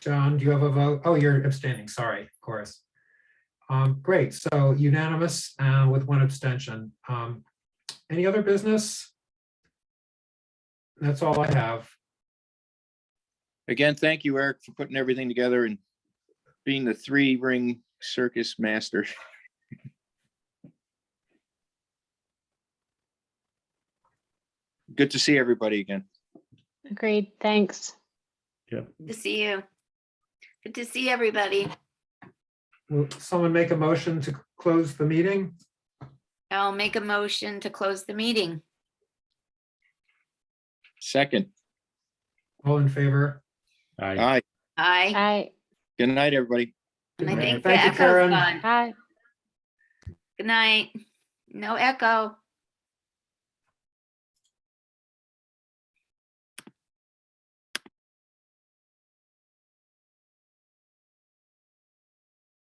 John, do you have a vote? Oh, you're abstaining, sorry, of course. Um, Great, so unanimous uh, with one abstention. Um, Any other business? That's all I have. Again, thank you, Eric, for putting everything together and being the three ring circus master. Good to see everybody again. Agreed, thanks. Good to see you. Good to see everybody. Will someone make a motion to close the meeting? I'll make a motion to close the meeting. Second, All in favor? Aye. aye. Aye. Aye, Good night, everybody. And I Good night. think the Thank you, echo's Karen. gone. aye. Good night. No echo.